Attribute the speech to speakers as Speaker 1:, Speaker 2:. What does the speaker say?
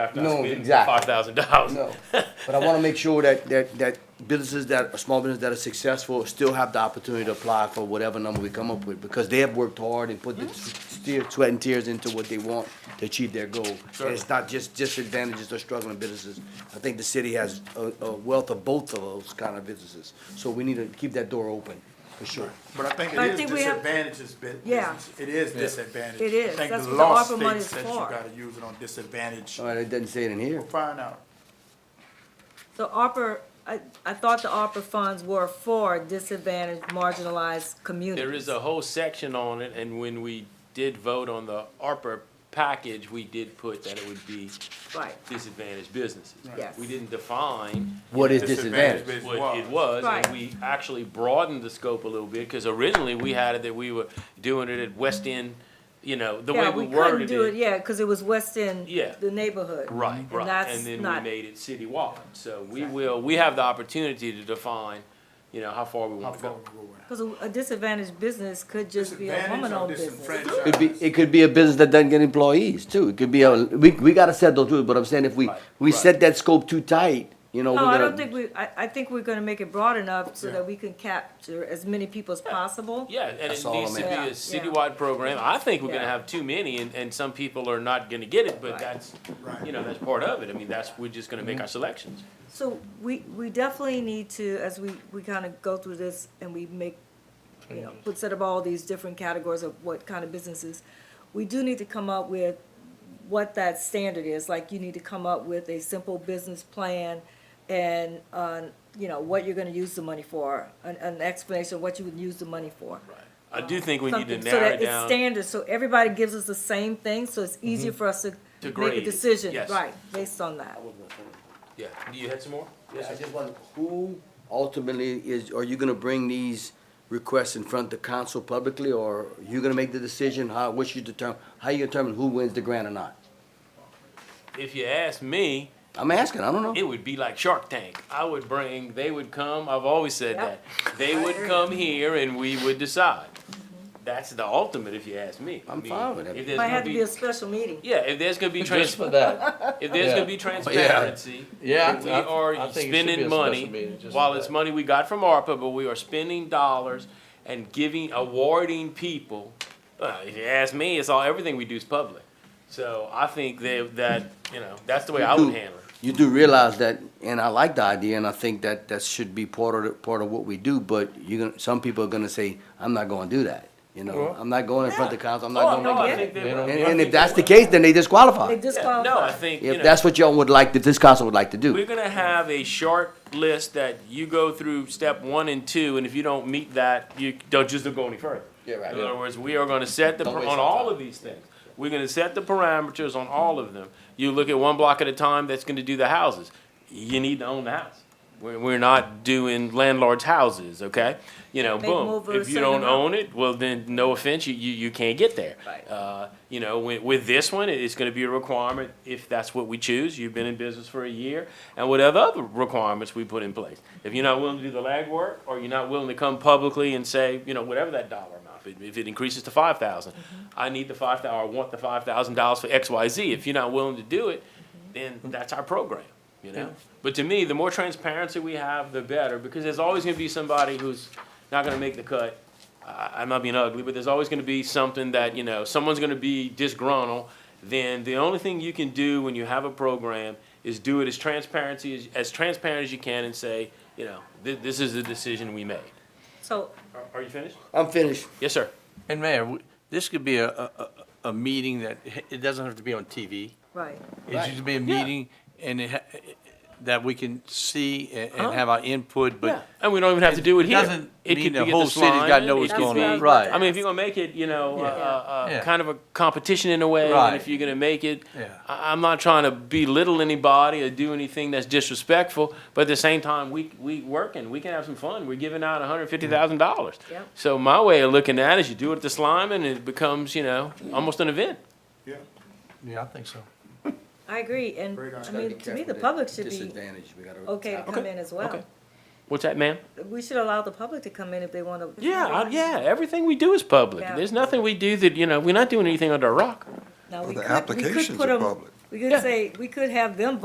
Speaker 1: No, exactly.
Speaker 2: Five thousand dollars.
Speaker 1: No, but I want to make sure that, that, that businesses that, are small businesses that are successful still have the opportunity to apply for whatever number we come up with, because they have worked hard and put the steer, sweat and tears into what they want to achieve their goal. And it's not just disadvantages or struggling businesses. I think the city has a, a wealth of both of those kind of businesses, so we need to keep that door open, for sure.
Speaker 3: But I think it
Speaker 4: But I
Speaker 3: is
Speaker 4: think we have-
Speaker 3: disadvantages, bu-
Speaker 4: Yeah.
Speaker 3: business. it is disadvantage.
Speaker 4: It is.
Speaker 3: I think
Speaker 4: That's
Speaker 3: the
Speaker 4: what the
Speaker 3: law
Speaker 4: ARPA money
Speaker 3: states
Speaker 4: is
Speaker 3: that you
Speaker 4: for.
Speaker 3: gotta use it on disadvantage.
Speaker 1: All right, it doesn't say it in here.
Speaker 3: We'll find out.
Speaker 4: So ARPA, I, I thought the ARPA funds were for disadvantaged, marginalized communities.
Speaker 2: There is a whole section on it, and when we did vote on the ARPA package, we did put that it would be
Speaker 4: Right,
Speaker 2: disadvantaged businesses.
Speaker 4: Yes.
Speaker 2: We didn't define
Speaker 1: What is
Speaker 3: Disadvantage
Speaker 1: disadvantage?
Speaker 2: what it was, and
Speaker 4: Right.
Speaker 2: we actually broadened the scope a little bit, because originally we had it that we were doing it at West End, you know, the way
Speaker 4: yeah,
Speaker 2: we
Speaker 4: we couldn't
Speaker 2: worded
Speaker 4: do it,
Speaker 2: it.
Speaker 4: yeah, cause it was West End,
Speaker 2: Yeah.
Speaker 4: the neighborhood.
Speaker 2: Right,
Speaker 4: And
Speaker 2: right,
Speaker 4: that's
Speaker 2: and then we
Speaker 4: not-
Speaker 2: made it citywide, so we will, we have the opportunity to define, you know, how far we
Speaker 3: How
Speaker 2: want to
Speaker 3: far
Speaker 2: go.
Speaker 3: we go with it.
Speaker 4: Cause a a disadvantaged business could just be a
Speaker 3: Disadvantage or
Speaker 4: woman-owned business.
Speaker 3: disenfranchised?
Speaker 1: It be, it could be a business that doesn't get employees too. It could be a, we, we gotta set those rules, but I'm saying if we,
Speaker 2: Right,
Speaker 1: we
Speaker 2: right.
Speaker 1: set that scope too tight, you know, we're
Speaker 4: No, I
Speaker 1: gonna.
Speaker 4: don't think we, I, I think we're gonna make it broad enough so that we can capture as many people as possible.
Speaker 2: Yeah, and
Speaker 1: That's
Speaker 2: it
Speaker 1: all
Speaker 2: needs
Speaker 1: I'm
Speaker 2: to be
Speaker 4: after.
Speaker 2: a citywide program. I think we're gonna
Speaker 4: Yeah.
Speaker 2: have too many and, and some people are not gonna get it, but
Speaker 4: Right. Mm-hmm.
Speaker 2: that's,
Speaker 3: Right.
Speaker 2: you know, that's part of it. I mean, that's, we're just gonna make our selections.
Speaker 4: So we, we definitely need to, as we, we kind of go through this and we make, you know, put set up all these different categories of what kind of businesses, we do need to come up with what that standard is, like you need to come up with a simple business plan and, uh, you know, what you're gonna use the money for, an, an explanation of what you would use the money for.
Speaker 2: I do think we need to
Speaker 4: Something, so
Speaker 2: narrow it
Speaker 4: that it's
Speaker 2: down. Mm-hmm.
Speaker 4: standard, so everybody gives us the same thing, so it's easier for us to make
Speaker 2: grade
Speaker 4: a
Speaker 2: it,
Speaker 4: decision,
Speaker 2: yes.
Speaker 4: right, based on that.
Speaker 2: Yeah, do you had some more?
Speaker 1: Yeah, I just want, who ultimately is, are you gonna bring these requests in front of the council publicly, or you gonna make the decision, how, what's your determine, how you determine who wins the grant or not?
Speaker 2: If you ask me,
Speaker 1: I'm asking, I don't know.
Speaker 2: it would be like Shark Tank. I would bring, they would come, I've always said that.
Speaker 4: Yep.
Speaker 2: They would
Speaker 4: agree.
Speaker 2: come here and we would decide.
Speaker 4: Mm-hmm.
Speaker 2: That's the ultimate if you ask me. I
Speaker 1: I'm
Speaker 2: mean,
Speaker 1: fine with it.
Speaker 2: if there's
Speaker 4: Might
Speaker 2: gonna
Speaker 4: have to be a special meeting.
Speaker 2: Yeah, if there's gonna be
Speaker 5: Just
Speaker 2: trans,
Speaker 5: for that.
Speaker 2: if there's
Speaker 5: Yeah.
Speaker 2: gonna be transparency.
Speaker 5: Yeah.
Speaker 2: We
Speaker 5: I- I- I
Speaker 2: are
Speaker 5: think it should be a
Speaker 2: spending
Speaker 5: special
Speaker 2: money,
Speaker 5: meeting just
Speaker 2: while
Speaker 5: for
Speaker 2: it's
Speaker 5: that.
Speaker 2: money we got from ARPA, but we are spending dollars and giving, awarding people. Well, if you ask me, it's all, everything we do is public. So I think that, that, you know, that's the way I would handle it.
Speaker 1: You do realize that, and I like the idea, and I think that that should be part of, the- part of what we do, but you're gonna, some people are gonna say, I'm not gonna do that, you know?
Speaker 5: Well-
Speaker 1: I'm not going in front of the council, I'm
Speaker 2: Oh,
Speaker 1: not
Speaker 2: no,
Speaker 1: gonna
Speaker 2: I
Speaker 1: make
Speaker 2: think
Speaker 5: They
Speaker 2: that-
Speaker 5: don't-
Speaker 1: And,
Speaker 2: I
Speaker 1: and if
Speaker 2: think
Speaker 1: that's the
Speaker 2: that-
Speaker 1: case, then they disqualify.
Speaker 4: They
Speaker 2: Yeah,
Speaker 4: disqualify.
Speaker 2: No, I think, you
Speaker 1: If
Speaker 2: know,
Speaker 1: that's what y'all would like, if this council would like to
Speaker 2: we're
Speaker 1: do.
Speaker 2: gonna have a short list that you go through step one and two, and if you don't meet that, you don't, just don't go any further.
Speaker 1: Yeah, right.
Speaker 2: In other words, we are gonna set the,
Speaker 5: Don't
Speaker 2: par-
Speaker 5: waste
Speaker 2: on
Speaker 5: our
Speaker 2: all
Speaker 5: time.
Speaker 2: of these things, we're gonna set the parameters on all of them. You look at one block at a time, that's gonna do the houses. You need to own the house. We're, we're not doing landlord's houses, okay? You know,
Speaker 4: Make
Speaker 2: boom,
Speaker 4: move or
Speaker 2: if you
Speaker 4: send
Speaker 2: don't
Speaker 4: them out.
Speaker 2: own it, well, then, no offense, you, you, you can't get there.
Speaker 4: Right.
Speaker 2: Uh, you know, with, with this one, it's gonna be a requirement, if that's what we choose, you've been in business for a year, and whatever other requirements we put in place. If you're not willing to do the legwork, or you're not willing to come publicly and say, you know, whatever that dollar amount, if, if it increases to five thousand, I need the five thou, or I want the five thousand dollars for X, Y, Z, if you're not willing to do it, then that's our program, you know? But to me, the more transparency we have, the better, because there's always gonna be somebody who's not gonna make the cut. I, I'm not being ugly, but there's always gonna be something that, you know, someone's gonna be disgruntled. Then the only thing you can do when you have a program is do it as transparency, as, as transparent as you can and say, you know, thi- this is the decision we made.
Speaker 4: So,
Speaker 2: Are, are you finished?
Speaker 1: I'm finished.
Speaker 2: Yes, sir.
Speaker 5: And Mayor, w- this could be a, a, a- a meeting that, it doesn't have to be on TV.
Speaker 4: right.
Speaker 5: It should be a meeting and it, ha- that we can see a- and have our input,
Speaker 2: Yeah,
Speaker 5: but
Speaker 2: and we don't even have to do it here.
Speaker 5: doesn't
Speaker 2: It
Speaker 5: mean
Speaker 2: could
Speaker 5: the
Speaker 2: be at
Speaker 5: whole city's
Speaker 2: Swan,
Speaker 5: gotta know
Speaker 2: it
Speaker 5: what's
Speaker 2: could
Speaker 4: going on.
Speaker 2: be-
Speaker 4: Right.
Speaker 2: I mean, if you're gonna make it, you know, uh,
Speaker 5: Yeah.
Speaker 2: uh,
Speaker 5: Yeah.
Speaker 2: kind of a competition in a way, and
Speaker 5: Right.
Speaker 2: if you're gonna make it,
Speaker 5: Yeah.
Speaker 2: I, I'm not trying to belittle anybody or do anything that's disrespectful, but at the same time, we we working, we can have some fun. We're giving out hundred fifty thousand dollars.
Speaker 4: Yep.
Speaker 2: So my way of looking at it is, you do it at the slime, and it becomes, you know, almost an event.
Speaker 3: Yeah.
Speaker 5: yeah, I think so.
Speaker 4: I agree, and,
Speaker 3: Very nice.
Speaker 4: I mean, to me, the public should be
Speaker 1: Disadvantage, we gotta.
Speaker 4: okay to come in as well.
Speaker 2: okay. What's that, ma'am?
Speaker 4: We should allow the public to come in if they want to.
Speaker 2: Yeah, I, yeah. Everything we do is public.
Speaker 4: Yeah.
Speaker 2: There's nothing we do that you know we're not doing anything under a rock.
Speaker 4: Now, we
Speaker 6: Well, the
Speaker 4: could, we could
Speaker 6: applications
Speaker 4: put
Speaker 6: are
Speaker 4: them,
Speaker 6: public.
Speaker 4: We could
Speaker 2: Yeah.
Speaker 4: say, we could have them